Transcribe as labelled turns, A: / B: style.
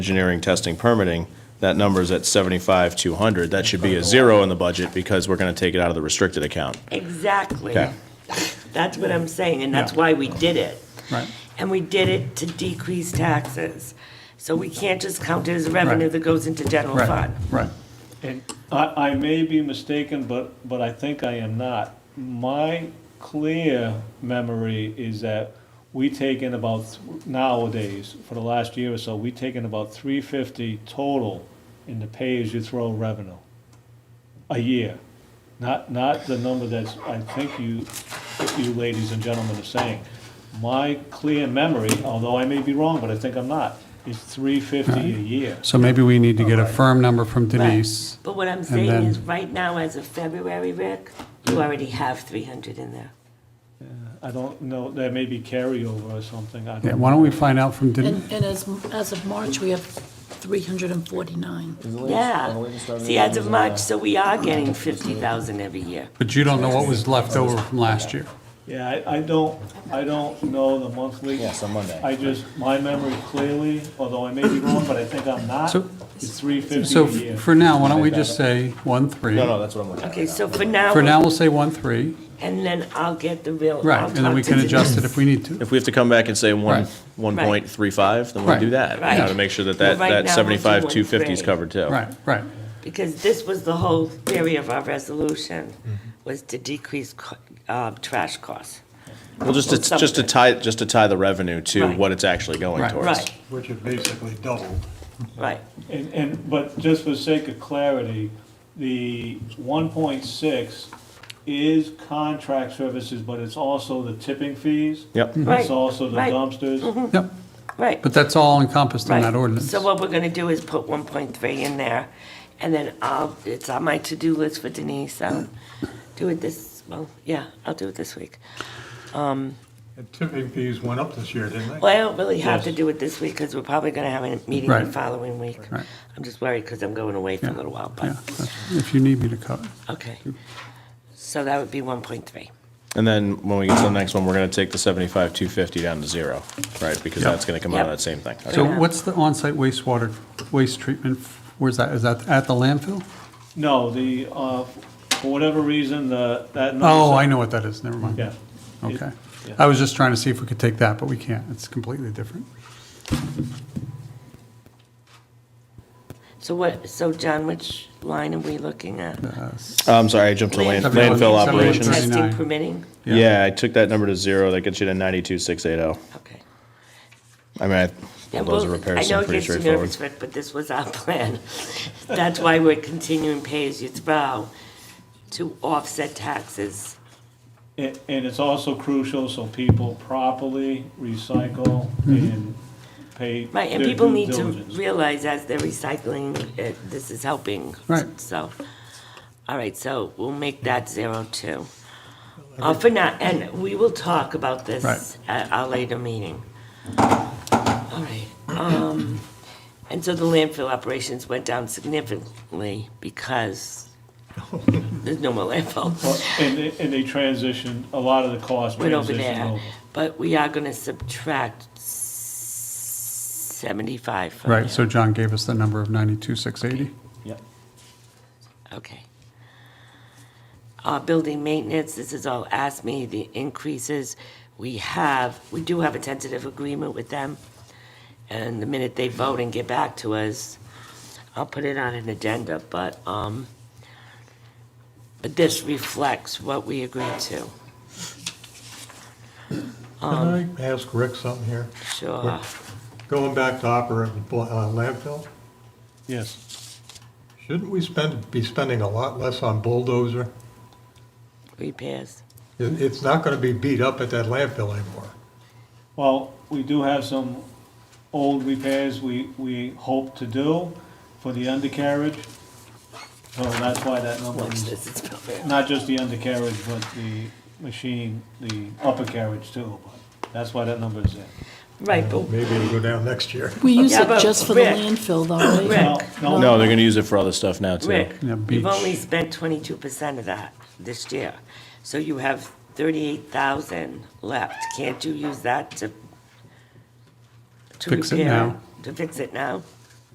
A: engineering, testing, permitting, that number's at 75,200. That should be a zero in the budget because we're going to take it out of the restricted account.
B: Exactly.
A: Okay.
B: That's what I'm saying, and that's
C: Yeah.
B: why we did it.
C: Right.
B: And we did it to decrease taxes. So we can't just count it as revenue
C: Right.
B: that goes into general
C: Right,
B: fund.
C: right.
D: And I, I may be mistaken, but, but I think I am not. My clear memory is that we take in about, th- nowadays, for the last year or so, we take in about three fifty total in the pay-as-you-throw revenue, a year. Not, not the number that's, I think you, you ladies and gentlemen are saying. My clear memory, although I may be wrong, but I think I'm not, is three fifty a year.
C: So maybe we need to get a firm number from Denise.
B: But what I'm saying
C: then-
B: is, right now, as of February, Rick, you already have 300 in there.
D: I don't know, there may be carryover or something, I
C: Yeah,
D: don't.
C: why don't we find out from Denise?
E: And, and as, as of March, we have 349.
B: Yeah. See, as of March, so we are getting 50,000 every year.
C: But you don't know what was left over from last year.
D: Yeah, I, I don't, I don't know the monthly.
F: Yes, on Monday.
D: I just, my memory clearly, although I may be wrong, but I think I'm not,
C: So-
D: is three fifty
C: So
D: a
C: f-
D: year.
C: for now, why don't we just say one, three?
F: No, no, that's what I'm looking at.
B: Okay, so for now,
C: For now, we'll say one, three,
B: and then I'll get the real.
C: right,
B: I'll
C: and then we
B: talk to
C: can
B: the-
C: adjust it if we need to.
A: If we have to come back and say one,
C: Right.
A: 1.35, then we'll do
C: Right.
A: that. You know, to
B: Right.
A: make sure that
B: Well,
A: that,
B: right
A: that
B: now, we'll do
A: 75,250 is
B: 1.3.
A: covered too.
C: Right, right,
B: Because this was the whole theory of our resolution,
C: Mm-hmm.
B: was to decrease co- uh, trash costs.
A: Well, just to,
B: Well,
A: just to
B: something.
A: tie, just to tie the revenue to
B: Right.
A: what it's actually going
C: Right.
A: towards.
B: Right,
G: Which have basically doubled.
B: right.
D: And, and, but just for sake of clarity, the one point six is contract services, but it's also the tipping fees.
A: Yep.
B: Right,
D: It's also the
B: right. Mm-hmm.
D: dumpsters.
C: yep,
B: Right.
C: but that's all encompassed in
B: right.
C: that ordinance.
B: So what we're gonna do is put one point three in there, and then I'll, it's on my to-do list for Denise, I'll do it this, well, yeah, I'll do it this week.
G: And tipping fees went up this year, didn't they?
B: Well, I don't really have to
D: Yes.
B: do it this week, because we're probably gonna have a meeting the
C: Right.
B: following week.
C: Right.
B: I'm just worried, because I'm going away for a little while,
C: Yeah,
B: but,
C: that's- if you need me to cover.
B: okay. So that would be one point three.
A: And then when we get to the next one, we're going to take the 75,250 down to zero, right? Because
C: Yep.
A: that's going to come out of
B: Yep.
A: that same thing. Okay.
C: So what's the on-site wastewater, waste treatment, where's that, is that at the landfill?
D: No, the, uh, for whatever reason, the, that. number-
C: Oh, I know what that is, never mind.
D: Yeah.
C: Okay.
D: Yeah.
C: I was just trying to see if we could take that, but we can't. It's completely different.
B: So what, so John, which line are we looking at?
C: Uh,
A: I'm sorry, I jumped to land-
C: Seventy-one-
A: landfill
C: seventy-one
A: operations.
C: percent.
B: Testing
C: 39.
B: permitting?
C: Yeah.
A: Yeah, I took that number to zero. That gets you to 92,680.
B: Okay.
A: oh. I mean, I,
B: Yeah,
A: well, those
B: well,
A: repairs
B: I know
A: seem
B: it
A: pretty
B: gets you
A: straightforward.
B: nervous, Rick, but this was our plan. That's why we're continuing pay as you throw to offset taxes.
D: And, and it's also crucial so people properly recycle and pay
B: Right, and
D: their
B: people
D: due
B: need to
D: diligence.
B: realize as they're recycling, uh, this is helping.
C: Right.
B: So, all right, so we'll make that zero too. Uh, for now, and we will talk about this
C: Right.
B: at our later meeting. All right, um, and so the landfill operations went down significantly because there's no more landfill.
D: Well, And they, and they transitioned, a lot of the cost
B: Went over
D: transitioned
B: there,
D: over.
B: but we are gonna subtract seventy-five from
C: Right,
B: there.
C: so John gave us the number of 92,680.
B: Okay. Uh, building maintenance, this is all asked me, the increases, we have, we do have a tentative agreement with them. And the minute they vote and get back to us, I'll put it on an agenda, but, um, but this reflects what we agreed to,
G: Can I ask Rick something here?
B: sure.
G: Going back to operating bl- uh, landfill,
D: Yes.
G: shouldn't we spend, be spending a lot less on bulldozer?
B: Repairs,
G: It- It's not going to be beat up at that landfill anymore.
D: Well, we do have some old repairs we, we hope to do for the undercarriage. So that's why that number
B: watch
D: is,
B: this, it's probably-
D: not just the undercarriage, but the machine, the upper carriage too. But That's why that number is there.
B: right, but
G: Maybe it'll go down next year.
E: We use
B: Yeah,
E: it
B: but
E: just for the
B: Rick-
E: landfill, though, right?
D: No,
B: Rick,
A: No,
D: no,
A: they're gonna use it for other stuff now too.
B: Rick,
C: Yeah,
B: you've
C: beach.
B: only spent twenty-two percent of that this year, so you have thirty-eight thousand left. Can't you use that to? to
C: Fix it
B: repair
C: now.
B: To fix it now?